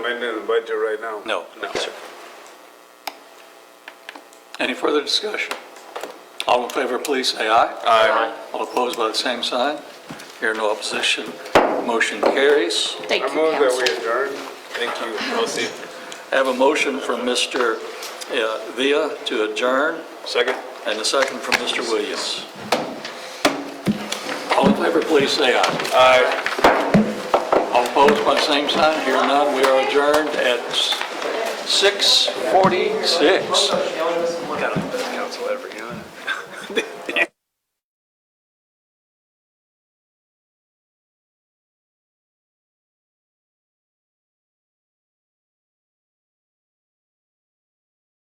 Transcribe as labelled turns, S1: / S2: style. S1: amending the budget right now.
S2: No, no, sir. Any further discussion? All in favor, please say aye. Aye. All opposed by the same sign. Here, no opposition. Motion carries.
S3: Thank
S1: I
S3: you,
S1: move that
S3: council.
S1: we adjourn. Thank you. I'll see.
S2: I have a motion from Mr. uh, Villa to adjourn,
S1: Second.
S2: and a second from Mr. Williams. All in favor, please say aye.
S1: Aye.
S2: All opposed by the same sign. Here, none. We are adjourned at 6:46.
S4: Got a council every, huh?